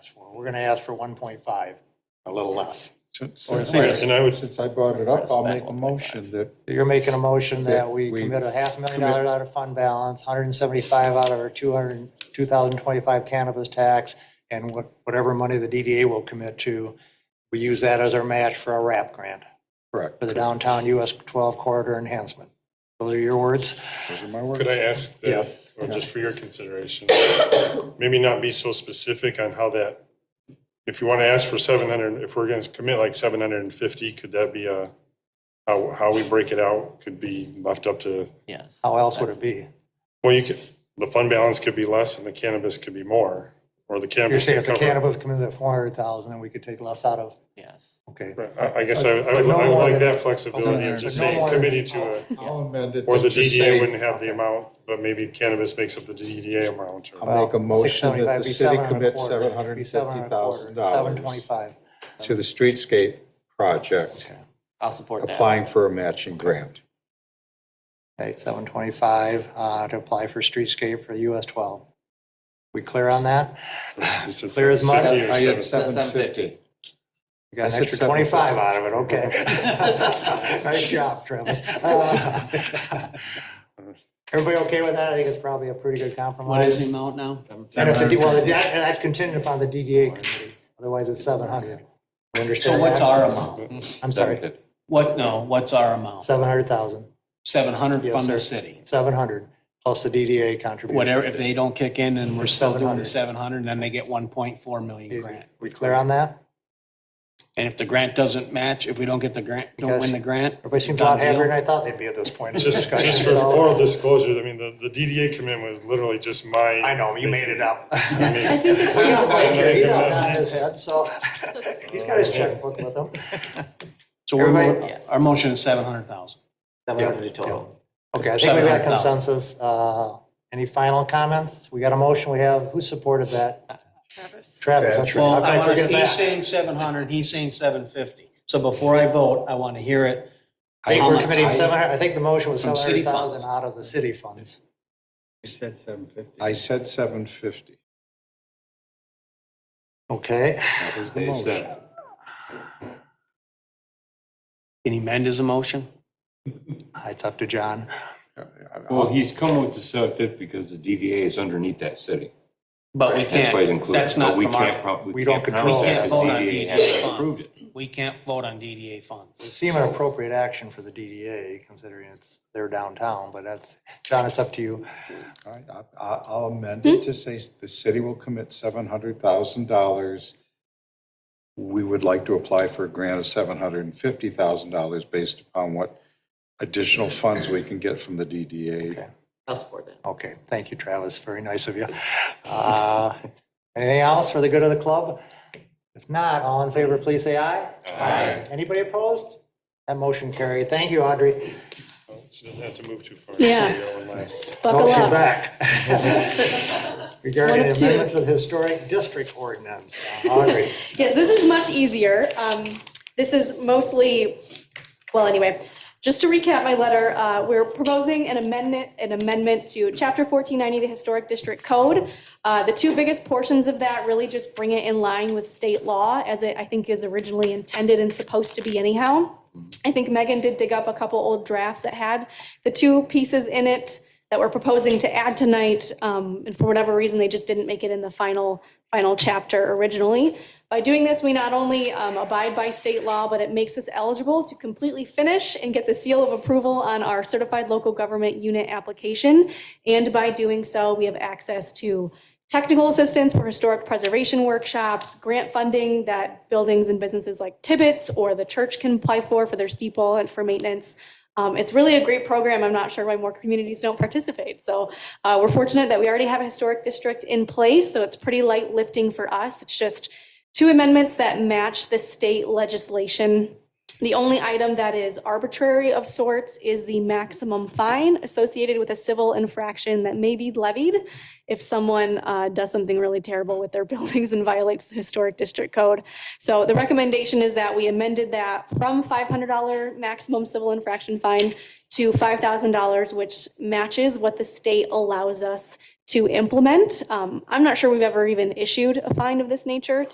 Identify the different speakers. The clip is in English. Speaker 1: asked for. We're gonna ask for one point five, a little less.
Speaker 2: Since
Speaker 3: Or it's
Speaker 2: since I-
Speaker 3: less, and I would-
Speaker 2: Since I brought it up,
Speaker 3: It's
Speaker 2: I'll
Speaker 3: that
Speaker 2: make a
Speaker 3: 1.5.
Speaker 2: motion that,
Speaker 1: You're making a motion that
Speaker 2: That
Speaker 1: we
Speaker 2: we
Speaker 1: commit a half million
Speaker 2: commit-
Speaker 1: dollars out of fund balance, hundred and seventy-five out of our 200 2025 cannabis tax, and what, whatever money the DDA will commit to, we use that as our match for our RAP grant,
Speaker 2: correct,
Speaker 1: for the downtown US twelve corridor enhancement. Those are your words?
Speaker 2: those are my words.
Speaker 3: Could I ask, that,
Speaker 1: Yeah.
Speaker 3: or just for your consideration, maybe not be so specific on how that, if you want to ask for 700, if we're going to commit like 750, could that be a, how, how we break it out could be left up to,
Speaker 4: Yes.
Speaker 1: How else would it be?
Speaker 3: well, you could, the fund balance could be less and the cannabis could be more, or the
Speaker 1: You're
Speaker 3: cannabis.
Speaker 1: saying if
Speaker 3: could
Speaker 1: the
Speaker 3: cover-
Speaker 1: cannabis comes in at four hundred thousand, then we could take less out of,
Speaker 4: Yes.
Speaker 1: okay.
Speaker 3: Right, I, I guess I, I
Speaker 1: Uh, But
Speaker 3: would,
Speaker 1: no
Speaker 3: I would
Speaker 1: more
Speaker 3: like
Speaker 1: than-
Speaker 3: that flexibility of just
Speaker 1: But no
Speaker 3: saying
Speaker 1: more than-
Speaker 3: committee to a,
Speaker 2: I'll amend it.
Speaker 3: or
Speaker 2: to
Speaker 3: the
Speaker 2: just
Speaker 3: DDA
Speaker 2: say-
Speaker 3: wouldn't have the amount, but maybe cannabis makes up the DDA amount. or-
Speaker 2: I'll make a
Speaker 1: Well,
Speaker 2: motion
Speaker 1: 675
Speaker 2: that the
Speaker 1: be
Speaker 2: city
Speaker 1: 700
Speaker 2: commits
Speaker 1: quarter. It'd be 700 quarter,
Speaker 2: $750,000
Speaker 1: 725.
Speaker 2: to the streetscape project,
Speaker 4: I'll support that.
Speaker 2: applying for a matching grant.
Speaker 1: Okay, 725 uh, to apply for streetscape for US 12. We clear on that?
Speaker 3: You said
Speaker 1: Clear as mud.
Speaker 3: 50 or
Speaker 2: I had
Speaker 3: 70.
Speaker 2: 750.
Speaker 1: We got
Speaker 2: I
Speaker 1: an
Speaker 2: said
Speaker 1: extra 25 out of it, okay. Nice job, Travis. Uh, Everybody okay with that? I think it's probably a pretty good
Speaker 4: What is
Speaker 1: compromise.
Speaker 4: the amount now?
Speaker 1: And if the, well, that- that's contingent upon the DDA committee, otherwise it's 700. You
Speaker 5: So
Speaker 1: understand
Speaker 5: what's
Speaker 1: that?
Speaker 5: our amount?
Speaker 1: I'm sorry,
Speaker 5: What, no, what's our amount?
Speaker 1: 700,000,
Speaker 5: Seven hundred
Speaker 1: Yes,
Speaker 5: from the
Speaker 1: sir.
Speaker 5: city.
Speaker 1: 700, plus the DDA contribution.
Speaker 5: Whatever, if they don't kick in and we're still doing the
Speaker 1: 700.
Speaker 5: seven hundred, then they get one point four million grant.
Speaker 1: We clear on that?
Speaker 5: And if the grant doesn't match, if we don't get the grant, don't
Speaker 1: Because
Speaker 5: win the grant.
Speaker 1: Everybody seems a
Speaker 5: done
Speaker 1: lot happier
Speaker 5: deal.
Speaker 1: than I thought they'd be at this point. in the
Speaker 3: Just,
Speaker 1: discussion,
Speaker 3: just for
Speaker 1: so-
Speaker 3: oral disclosure, I mean, the, the DDA commitment was literally just my.
Speaker 1: I know, you made it up.
Speaker 3: mean-
Speaker 6: I think it's
Speaker 1: He's not like you, He
Speaker 3: Yeah.
Speaker 1: don't nod his head, so he's got his checkbook with him.
Speaker 5: So we're,
Speaker 1: Everybody-
Speaker 5: mo-
Speaker 4: Yes.
Speaker 5: our motion is seven hundred thousand.
Speaker 4: Seven hundred total.
Speaker 1: Okay, I think we got
Speaker 5: 700,000.
Speaker 1: consensus. Uh, Any final comments? We got a motion, we have, who supported that? Travis, that's right. How
Speaker 5: Well, I
Speaker 1: could I
Speaker 5: want to,
Speaker 1: forget
Speaker 5: he's
Speaker 1: that?
Speaker 5: saying seven hundred, he's saying seven fifty. So before I vote, I want to hear it.
Speaker 1: I think
Speaker 5: how
Speaker 1: we're
Speaker 5: much-
Speaker 1: committing 700, I think the motion was
Speaker 5: From city
Speaker 1: 700,000
Speaker 5: funds.
Speaker 1: out of the city funds.
Speaker 2: I said 750.
Speaker 1: Okay,
Speaker 2: That was the motion.
Speaker 5: Can he amend his motion?
Speaker 1: it's up to John.
Speaker 7: Well, he's coming with the seven fifty because the DDA is underneath that city.
Speaker 5: But we
Speaker 7: That's why he's
Speaker 5: can't,
Speaker 7: included.
Speaker 5: that's not
Speaker 7: But we
Speaker 5: from our.
Speaker 7: can't prob-
Speaker 1: We don't
Speaker 7: can't
Speaker 1: control
Speaker 7: promise
Speaker 1: that.
Speaker 7: that because
Speaker 5: We can't vote on
Speaker 7: hasn't
Speaker 5: DDA
Speaker 7: approved
Speaker 5: funds.
Speaker 7: it.
Speaker 5: We can't vote on DDA funds.
Speaker 1: It seemed an appropriate action for the DDA considering it's their downtown, but that's, John, it's up to you.
Speaker 2: All right, I- I- I'll amend it to say the city will commit $700,000. We would like to apply for a grant of $750,000 based upon what additional funds we can get from the DDA.
Speaker 4: I'll support that.
Speaker 1: Okay, thank you, Travis. Very nice of you. Uh, Anything else for the good of the club? If not, all in favor, please say aye. Aye. Anybody opposed? That motion carried. Thank you, Audrey.
Speaker 3: She doesn't have to move too far.
Speaker 6: Yeah. Buckle
Speaker 1: Motion
Speaker 6: up.
Speaker 1: back. Regarding
Speaker 6: One of two.
Speaker 1: amendment to the historic district ordinance, Audrey.
Speaker 6: Yes, this is much easier. Um, This is mostly, well, anyway, just to recap my letter, uh, we're proposing an amendment, an amendment to Chapter 1490, of the Historic District Code. Uh, The two biggest portions of that really just bring it in line with state law, as it, I think, is originally intended and supposed to be anyhow. I think Megan did dig up a couple old drafts that had the two pieces in it that we're proposing to add tonight, um, and for whatever reason, they just didn't make it in the final, final chapter originally. By doing this, we not only um, abide by state law, but it makes us eligible to completely finish and get the seal of approval on our certified local government unit application. And by doing so, we have access to technical assistance for historic preservation workshops, grant funding that buildings and businesses like Tibbetts or the church can apply for, for their steeple and for maintenance. Um, It's really a great program. I'm not sure why more communities don't participate. So uh, we're fortunate that we already have a historic district in place, so it's pretty light lifting for us. It's just two amendments that match the state legislation. The only item that is arbitrary of sorts is the maximum fine associated with a civil infraction that may be levied if someone uh, does something really terrible with their buildings and violates the historic district code. So the recommendation is that we amended that from $500 maximum civil infraction fine to $5,000, which matches what the state allows us to implement. Um, I'm not sure we've ever even issued a fine of this nature, to